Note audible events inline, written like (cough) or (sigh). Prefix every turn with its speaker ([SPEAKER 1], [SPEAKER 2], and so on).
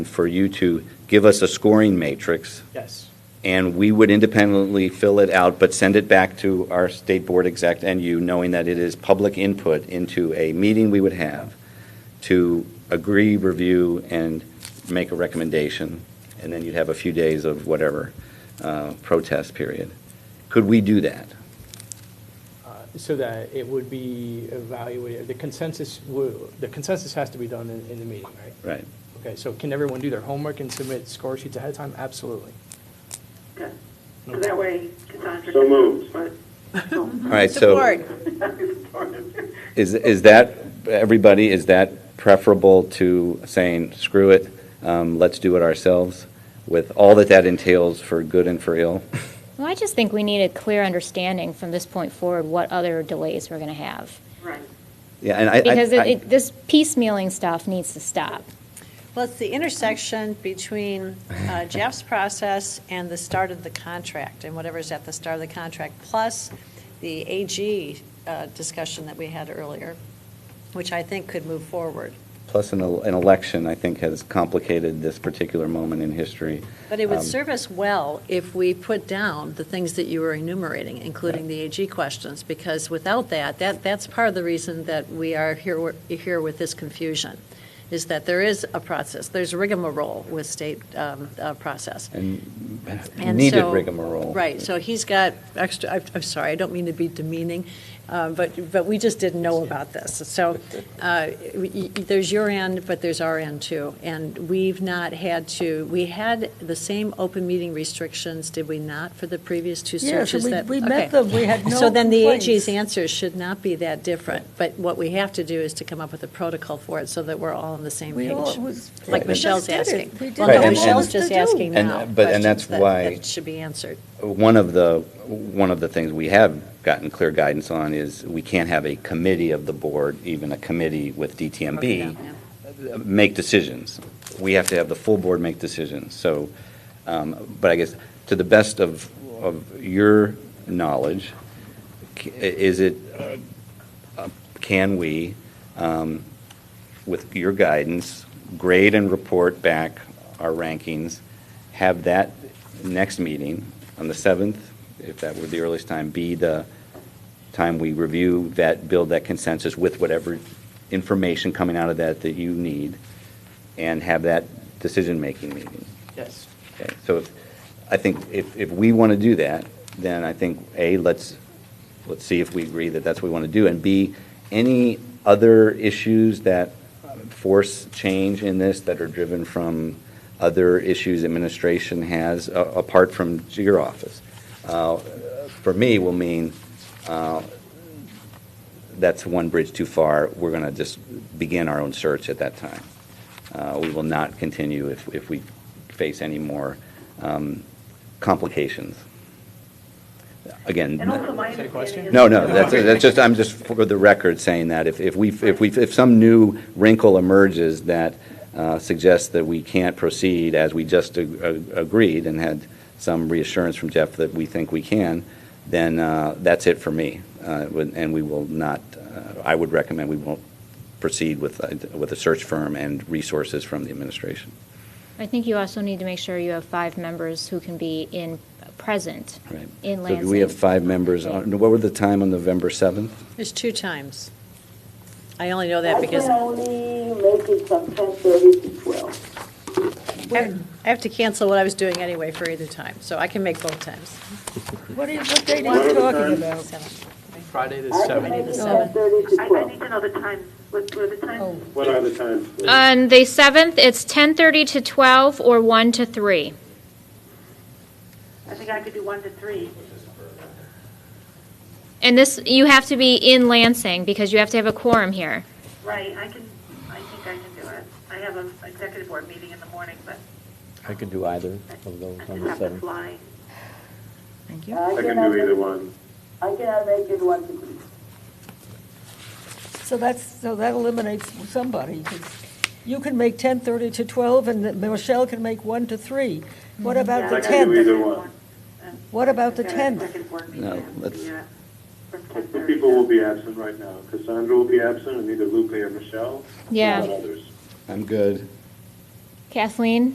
[SPEAKER 1] for you to give us a scoring matrix,
[SPEAKER 2] Yes,
[SPEAKER 1] and we would independently fill it out, but send it back to our state board exec and you, knowing that it is public input into a meeting we would have to agree, review, and make a recommendation, and then you'd have a few days of whatever uh, protest period. Could we do that?
[SPEAKER 2] uh, so that it would be evaluated, the consensus, wo- the consensus has to be done in, in the meeting, right?
[SPEAKER 1] Right.
[SPEAKER 2] Okay, so can everyone do their homework and submit score sheets ahead of time? Absolutely.
[SPEAKER 3] Okay. So that way Cassandra.
[SPEAKER 4] So moved.
[SPEAKER 3] But-
[SPEAKER 1] All right, so. (laughs) Is, is that, everybody, is that preferable to saying, screw it, um, let's do it ourselves, with all that that entails for good and for ill?
[SPEAKER 5] Well, I just think we need a clear understanding from this point forward what other delays we're going to have.
[SPEAKER 3] Right.
[SPEAKER 1] Yeah, and I- I.
[SPEAKER 5] Because
[SPEAKER 1] I-
[SPEAKER 5] it- it- this piecemealing stuff needs to stop.
[SPEAKER 6] Well, it's the intersection between
[SPEAKER 1] (laughs)
[SPEAKER 6] uh, Jeff's process and the start of the contract, and whatever's at the start of the contract, plus the AG uh, discussion that we had earlier, which I think could move forward.
[SPEAKER 1] Plus, an, el- an election, I think, has complicated this particular moment in history.
[SPEAKER 6] But it would
[SPEAKER 1] Um,
[SPEAKER 6] serve us well if we put down the things that you were enumerating, including the AG questions, because without that, that, that's part of the reason that we are here, here with this confusion, is that there is a process, there's rigmarole with state um, uh, process.
[SPEAKER 1] And
[SPEAKER 6] And
[SPEAKER 1] needed
[SPEAKER 6] so-
[SPEAKER 1] rigmarole.
[SPEAKER 6] Right, so he's got extra, I'm- I'm sorry, I don't mean to be demeaning, uh, but, but we just didn't know about this. So uh, y- y- there's your end, but there's our end too. And we've not had to, we had the same open meeting restrictions, did we not, for the previous two
[SPEAKER 7] Yes,
[SPEAKER 6] searches?
[SPEAKER 7] we-
[SPEAKER 6] that-
[SPEAKER 7] we met
[SPEAKER 6] okay.
[SPEAKER 7] them. We had
[SPEAKER 6] So
[SPEAKER 7] no
[SPEAKER 6] then the AG's
[SPEAKER 7] complaints.
[SPEAKER 6] answers should not be that different. But what we have to do is to come up with a protocol for it so that we're all on the same
[SPEAKER 7] We
[SPEAKER 6] page.
[SPEAKER 7] all- it was-
[SPEAKER 6] Like
[SPEAKER 1] Right.
[SPEAKER 6] Michelle's
[SPEAKER 7] We just did it.
[SPEAKER 6] asking.
[SPEAKER 7] We did
[SPEAKER 6] Well,
[SPEAKER 1] Right,
[SPEAKER 6] no,
[SPEAKER 1] and-
[SPEAKER 6] Michelle's
[SPEAKER 1] and-
[SPEAKER 6] just
[SPEAKER 7] What else to do?
[SPEAKER 6] asking
[SPEAKER 1] And-
[SPEAKER 6] now
[SPEAKER 1] but- and that's
[SPEAKER 6] questions that-
[SPEAKER 1] why-
[SPEAKER 6] that should be answered.
[SPEAKER 1] One of the, one of the things we have gotten clear guidance on is we can't have a committee of the board, even a committee with DTMB,
[SPEAKER 6] Yeah.
[SPEAKER 1] make decisions. We have to have the full board make decisions. So, um, but I guess, to the best of, of your knowledge, c- is it, uh, uh, can we, um, with your guidance, grade and report back our rankings, have that next meeting on the 7th, if that were the earliest time, be the time we review that, build that consensus with whatever information coming out of that that you need, and have that decision-making meeting.
[SPEAKER 2] Yes.
[SPEAKER 1] Okay, So if, I think if, if we want to do that, then I think, A, let's, let's see if we agree that that's what we want to do, and B, any other issues that force change in this that are driven from other issues administration has, a- apart from your office, uh, for me will mean, uh, that's one bridge too far, we're going to just begin our own search at that time. Uh, We will not continue if, if we face any more um, complications. Again.
[SPEAKER 3] And also my
[SPEAKER 2] Is that a question?
[SPEAKER 3] understanding
[SPEAKER 1] No, no,
[SPEAKER 3] is.
[SPEAKER 1] that's, that's just, I'm just for the record saying that if, if we, if we, if some new wrinkle emerges that uh, suggests that we can't proceed as we just ag- ag- agreed and had some reassurance from Jeff that we think we can, then uh, that's it for me. Uh, it would- And we will not, uh, I would recommend we won't proceed with, a- with a search firm and resources from the administration.
[SPEAKER 5] I think you also need to make sure you have five members who can be in, present
[SPEAKER 1] Right.
[SPEAKER 5] in
[SPEAKER 1] So
[SPEAKER 5] Lansing.
[SPEAKER 1] do we have five members? on- What were the time on November 7th?
[SPEAKER 6] There's two times. I only know that because
[SPEAKER 3] I can only make it from ten thirty to twelve.
[SPEAKER 6] I I have to cancel what I was doing anyway for either time, so I can make both times.
[SPEAKER 7] What are you, what date
[SPEAKER 4] What
[SPEAKER 7] are
[SPEAKER 4] are
[SPEAKER 7] you
[SPEAKER 4] the
[SPEAKER 7] talking
[SPEAKER 4] terms?
[SPEAKER 7] about?
[SPEAKER 6] Seven.
[SPEAKER 2] Friday the
[SPEAKER 3] I can make
[SPEAKER 2] 7th.
[SPEAKER 3] it
[SPEAKER 6] seven.
[SPEAKER 3] ten thirty to
[SPEAKER 8] I, I
[SPEAKER 3] twelve.
[SPEAKER 8] need to know the times. What were the times?
[SPEAKER 4] What are the times? please?
[SPEAKER 5] On the 7th, it's 10:30 to 12 or 1 to 3.
[SPEAKER 8] I think I could do one to three.
[SPEAKER 5] And this, you have to be in Lansing because you have to have a quorum here.
[SPEAKER 8] Right, I can, I think I can do it. I have an executive board meeting in the morning, but
[SPEAKER 9] I could do either
[SPEAKER 8] I
[SPEAKER 9] of those
[SPEAKER 8] I
[SPEAKER 9] on
[SPEAKER 8] just have
[SPEAKER 9] the
[SPEAKER 8] to
[SPEAKER 9] 7th.
[SPEAKER 8] fly.
[SPEAKER 4] I can do either one.
[SPEAKER 3] I cannot make it one to three.
[SPEAKER 7] So that's, so that eliminates somebody. 'cause You can make 10:30 to 12, and Michelle can make 1 to 3. What about the
[SPEAKER 4] I can do
[SPEAKER 7] 10th?
[SPEAKER 4] either one.
[SPEAKER 7] What about the
[SPEAKER 8] I've got a
[SPEAKER 7] 10th?
[SPEAKER 8] executive board meeting
[SPEAKER 1] No,
[SPEAKER 8] at the,
[SPEAKER 1] let's-
[SPEAKER 8] uh, From ten
[SPEAKER 4] Two
[SPEAKER 8] thirty.
[SPEAKER 4] people will be absent right now. Cassandra will be absent, and either Lupe or Michelle.
[SPEAKER 5] Yeah.
[SPEAKER 4] Not others.
[SPEAKER 1] I'm good.
[SPEAKER 5] Kathleen?